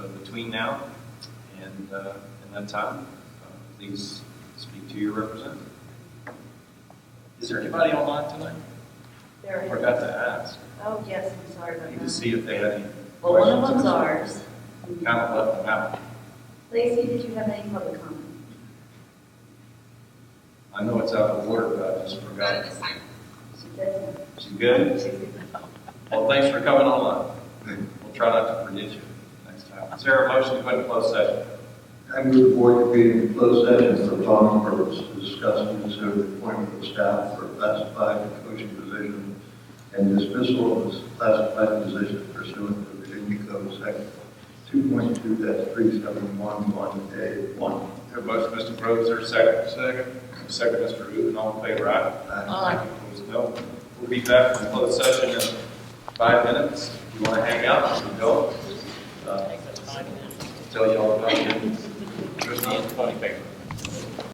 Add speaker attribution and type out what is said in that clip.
Speaker 1: uh, between now and, uh, and that time, uh, please speak to your representative. Is there anybody online tonight?
Speaker 2: There
Speaker 1: I
Speaker 2: is,
Speaker 1: Forgot to ask.
Speaker 2: oh, yes, I'm sorry
Speaker 1: I
Speaker 2: about
Speaker 1: need to
Speaker 2: that.
Speaker 1: see if they had any.
Speaker 2: Well, one of
Speaker 1: questions.
Speaker 2: them's ours.
Speaker 1: Kind of left them out.
Speaker 2: Lacey, did you have any public comment?
Speaker 1: I know it's out of order, but I just forgot.
Speaker 2: She doesn't.
Speaker 1: She good?
Speaker 2: She-
Speaker 1: Well, thanks for coming online. We'll try not to forget you next time. Is there a motion to go into closed session?
Speaker 3: I move board convening in closed session for following purpose, to discuss and consider the appointment of staff for classified and coaching position and dismissal of this classified position pursuant to Virginia Code Section two point two three seven one one A one.
Speaker 1: There a motion, Mr. Groves, there a second? Second. Second, Mr. Rubin, all in favor, aye?
Speaker 2: Aye.
Speaker 1: Opposed, no. We'll be back in closed session in five minutes. If you want to hang out, you can go. Uh, Tell you all about it. Christie and Tony Baker.